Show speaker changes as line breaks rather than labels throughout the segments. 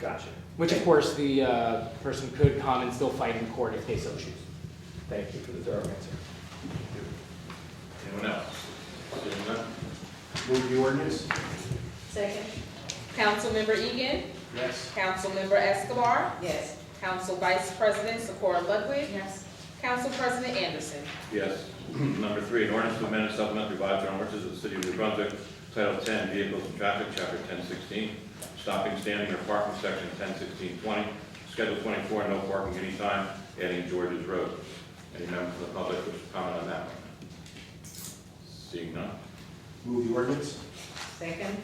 Gotcha.
Which of course, the uh, person could come and still fight in court if they so choose.
Thank you for the thorough answer.
Anyone else? Seeing none?
Move the ordinance?
Second.
Councilmember Egan.
Yes.
Councilmember Escobar.
Yes.
Council Vice President Socorro Ludwig.
Yes.
Council President Anderson.
Yes. Number three, an ordinance to amend and supplement revised general ordinances of the city of New Brunswick, Title 10, Vehicles and Traffic, Chapter 1016, Stopping, Standing, or Parking, Section 101620, Schedule 24, No Parking Anytime, adding George's Road. Any member from the public wish to comment on that one? Seeing none?
Move the ordinance?
Second.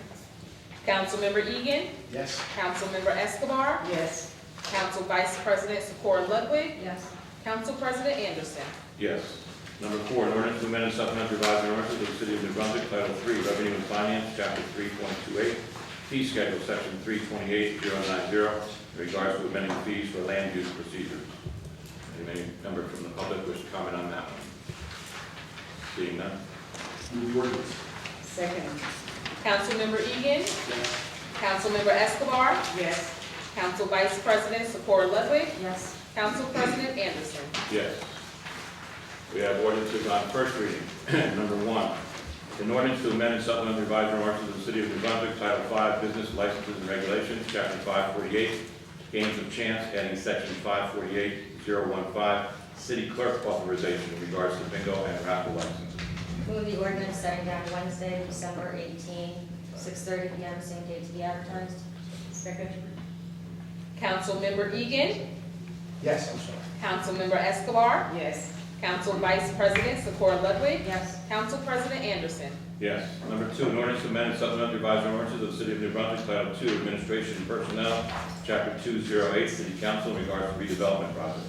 Councilmember Egan.
Yes.
Councilmember Escobar.
Yes.
Council Vice President Socorro Ludwig.
Yes.
Council President Anderson.
Yes. Number four, an ordinance to amend and supplement revised general ordinances of the city of New Brunswick, Title 3, Revenue and Finance, Chapter 3.28, Fee Schedule, Section 328090, in regards to amending fees for land use procedures. Any member from the public wish to comment on that one? Seeing none?
Move the ordinance?
Second.
Councilmember Egan.
Yes.
Councilmember Escobar.
Yes.
Council Vice President Socorro Ludwig.
Yes.
Council President Anderson.
Yes. We have ordinances on first reading. Number one, an ordinance to amend and supplement revised ordinances of the City of New Brunswick, Title V, Business Licenses and Regulations, Chapter 548, Games of Chance, adding Section 548015, City Clerk Authorization in regards to bingo and raffle licenses.
Move the ordinance setting down Wednesday, December 18, 6:30 PM, same day to be advertised.
Second.
Councilmember Egan.
Yes, I'm sorry.
Councilmember Escobar.
Yes.
Council Vice President Socorro Ludwig.
Yes.
Council President Anderson.
Yes. Number two, an ordinance to amend and supplement revised ordinances of the City of New Brunswick, Title II, Administration and Personnel, Chapter 208, City Council in regards to redevelopment projects.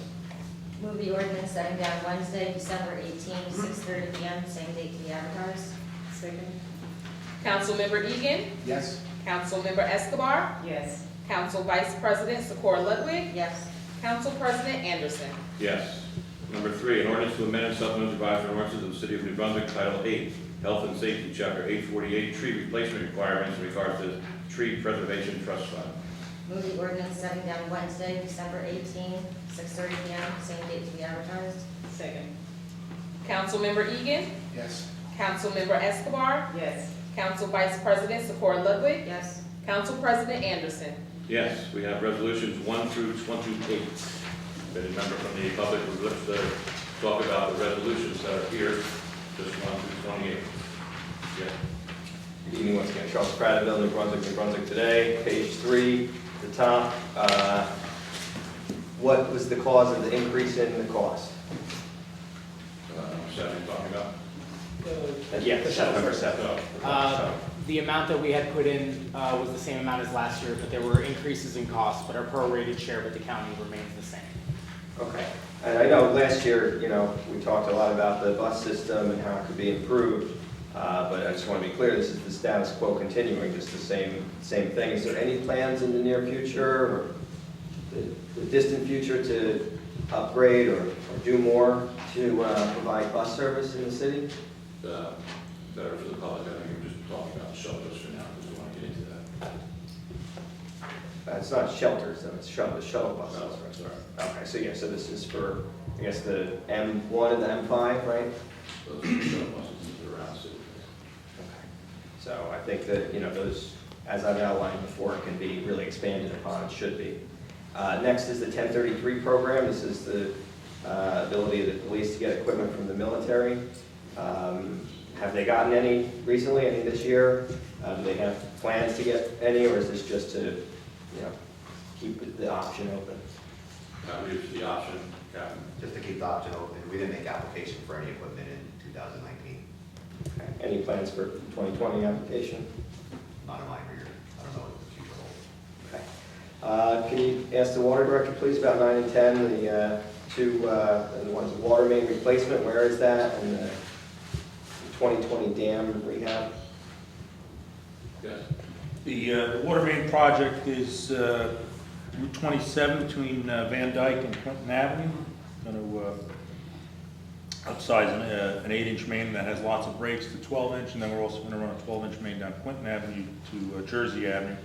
Move the ordinance setting down Wednesday, December 18, 6:30 PM, same day to be advertised.
Second.
Councilmember Egan.
Yes.
Councilmember Escobar.
Yes.
Council Vice President Socorro Ludwig.
Yes.
Council President Anderson.
Yes. Number three, an ordinance to amend and supplement revised ordinances of the City of New Brunswick Title Eight, Health and Safety, Chapter eight forty-eight, tree replacement requirements in regards to tree preservation trust fund.
Move the ordinance setting down Wednesday, December 18, 6:30 PM, same day to be advertised.
Second.
Councilmember Egan.
Yes.
Councilmember Escobar.
Yes.
Council Vice President Socorro Ludwig.
Yes.
Council President Anderson.
Yes, we have resolutions one through twenty-eight. If any member from the public would like to talk about the resolutions that are here, just one through twenty-eight. Yeah.
Good evening once again, Charles Prattville, New Brunswick, New Brunswick Today, page three, the top. uh, What was the cause of the increase in the cost?
Uh, Seven, talking about.
Yeah, the seven. Number seven.
Uh, The amount that we had put in uh, was the same amount as last year, but there were increases in costs, but our prorated share with the county remains the same.
Okay, and I know last year, you know, we talked a lot about the bus system and how it could be improved, uh, but I just want to be clear, this is the status quo continuing, just the same, same thing. Is there any plans in the near future or the the distant future to upgrade or or do more to uh, provide bus service in the city?
uh, better for the public, I think we're just talking about shelters for now, because we want to get into that.
Uh, It's not shelters, though, it's shuttle, shuttle buses.
No, that's right.
Okay, so yeah, so this is for, I guess, the M1 and the M5, right?
Those are the shuttle buses around the city.
So I think that, you know, those, as I've outlined before, can be really expanded upon, should be. Uh, Next is the 1033 program. This is the uh, ability of the police to get equipment from the military. Um, Have they gotten any recently, any this year? Uh, Do they have plans to get any, or is this just to, you know, keep the option open?
That leaves the option, Captain.
just to keep the option open. We didn't make application for any equipment in 2019,
Any plans for 2020 application?
not in my career. I don't know what the future holds.
Okay. Uh, Can you ask the water director, please, about nine and 10, the uh, two, uh, the one's the water main replacement, where is that? And the 2020 dam rehab?
Yes.
The uh, the water main project is uh, Route 27 between uh, Van Dyke and Clinton Avenue. Going to upsize an, uh, an eight-inch main that has lots of breaks to 12-inch, and then we're also going to run a 12-inch main down Clinton Avenue to uh, Jersey Avenue.